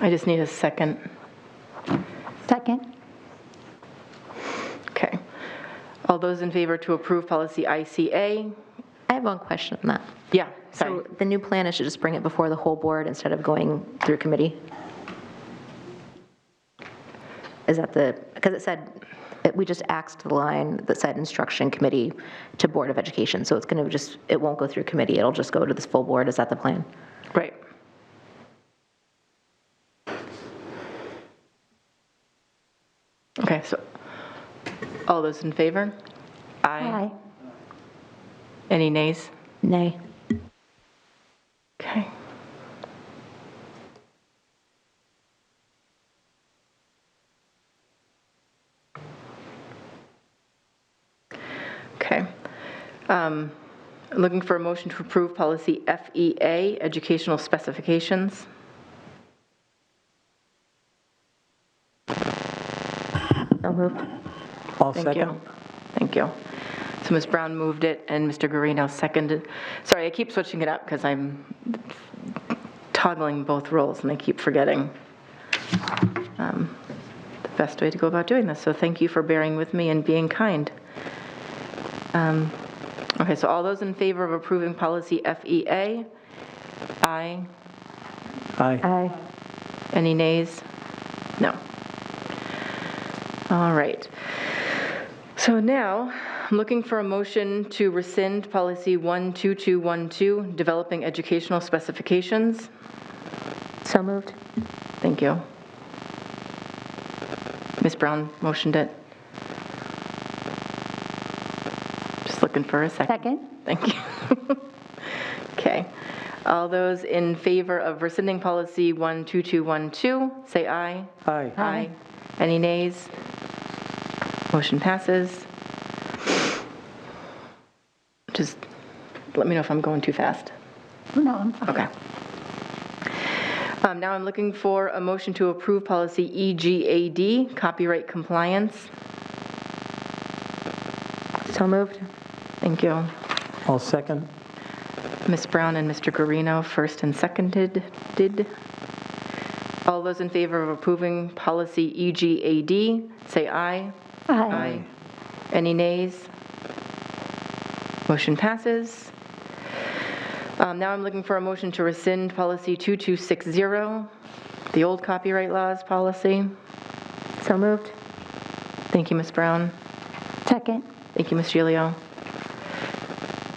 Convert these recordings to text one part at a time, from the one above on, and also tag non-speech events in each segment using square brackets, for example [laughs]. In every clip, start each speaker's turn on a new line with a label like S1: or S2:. S1: I just need a second.
S2: Second.
S1: Okay. All those in favor to approve policy ICA?
S3: I have one question on that.
S1: Yeah, sorry.
S3: So the new plan is to just bring it before the whole board instead of going through committee? Is that the, because it said, it- we just axed the line that said instruction committee to Board of Education, so it's going to just, it won't go through committee, it'll just go to this full board, is that the plan?
S1: Right. Okay, so, all those in favor?
S2: Aye.
S1: Any nays?
S3: Nay.
S1: Okay. Okay. Um, Looking for a motion to approve policy FEA, educational specifications.
S3: So moved.
S4: I'll
S1: Thank
S4: second.
S1: you. Thank you. So Ms. Brown moved it, and Mr. Guarino seconded. Sorry, I keep switching it up because I'm toggling both roles, and I keep forgetting um, the best way to go about doing this. So thank you for bearing with me and being kind. Um, Okay, so all those in favor of approving policy FEA? Aye.
S4: Aye.
S2: Aye.
S1: Any nays? No. All right. So now, I'm looking for a motion to rescind policy 12212, developing educational specifications.
S2: So moved.
S1: Thank you. Ms. Brown motioned it. Just looking for a second.
S2: Second.
S1: Thank you. [laughs] Okay. All those in favor of rescinding policy 12212, say aye.
S4: Aye.
S1: Aye. Any nays? Motion passes. Just let me know if I'm going too fast.
S2: No, I'm fine.
S1: Okay. Um, Now I'm looking for a motion to approve policy E EGAD, copyright compliance.
S3: So moved.
S1: Thank you.
S4: I'll second.
S1: Ms. Brown and Mr. Guarino, first and seconded, did. All those in favor of approving policy E EGAD, say aye.
S2: Aye.
S1: Any nays? Motion passes. Um, Now I'm looking for a motion to rescind policy 2260, the old copyright laws policy.
S3: So moved.
S1: Thank you, Ms. Brown.
S2: Second.
S1: Thank you, Ms. Gilio.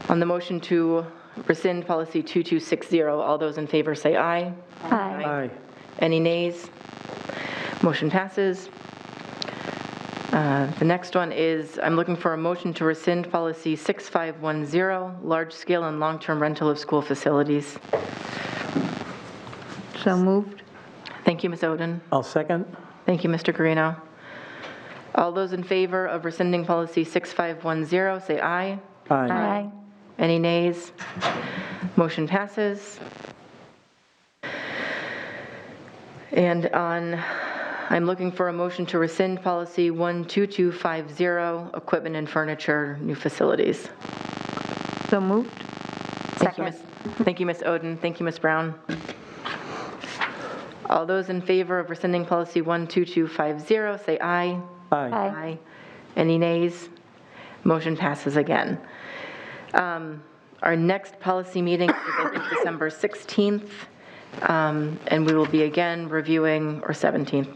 S1: On the motion to rescind policy 2260, all those in favor say aye.
S2: Aye.
S4: Aye.
S1: Any nays? Motion passes. Uh, The next one is, I'm looking for a motion to rescind policy 6510, large-scale and long-term rental of school facilities.
S2: So moved.
S1: Thank you, Ms. Oden.
S4: I'll second.
S1: Thank you, Mr. Guarino. All those in favor of rescinding policy 6510, say aye.
S4: Aye.
S2: Aye.
S1: Any nays? Motion passes. And on, I'm looking for a motion to rescind policy 12250, equipment and furniture, new facilities.
S2: So moved.
S1: Thank you, Ms. Thank you, Ms. Oden. Thank you, Ms. Brown. All those in favor of rescinding policy 12250, say aye.
S4: Aye.
S2: Aye.
S1: Aye. Any nays? Motion passes again. Um, Our next policy meeting is, I think, December 16th, um, and we will be again reviewing, or 17th,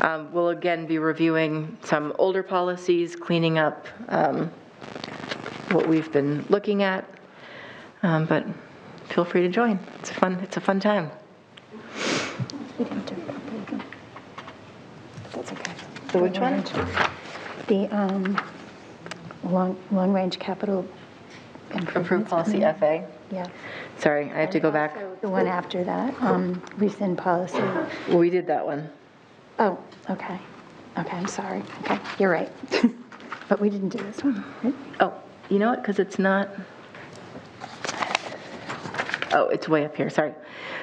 S1: Um, we'll again be reviewing some older policies, cleaning up um, what we've been looking at, Um, but feel free to join. It's a fun, it's a fun time.
S2: We didn't do that, but we can- That's okay.
S1: The which one?
S2: The um, long- long-range capital improvements.
S1: Approved policy FA.
S2: Yeah.
S1: Sorry, I have to go back.
S2: The one after that, um, rescind policy.
S1: We did that one.
S2: Oh, okay. Okay, I'm sorry. Okay, you're right. [laughs] But we didn't do this one. right?
S1: Oh, you know what, because it's not, oh, it's way up here, sorry.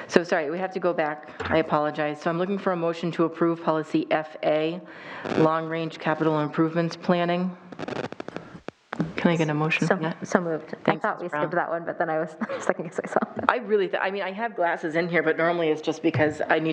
S1: So, sorry, we have to go back, I apologize. So I'm looking for a motion to approve policy FA, long-range capital improvements planning. Can I get a motion for
S3: So
S1: that?
S3: so moved. I
S1: Thanks,
S3: thought
S1: Ms.
S3: we
S1: Brown.
S3: skipped that one, but then I was [laughs] second guessing myself.
S1: I really, thi- I mean, I have glasses in here, but normally it's just because I need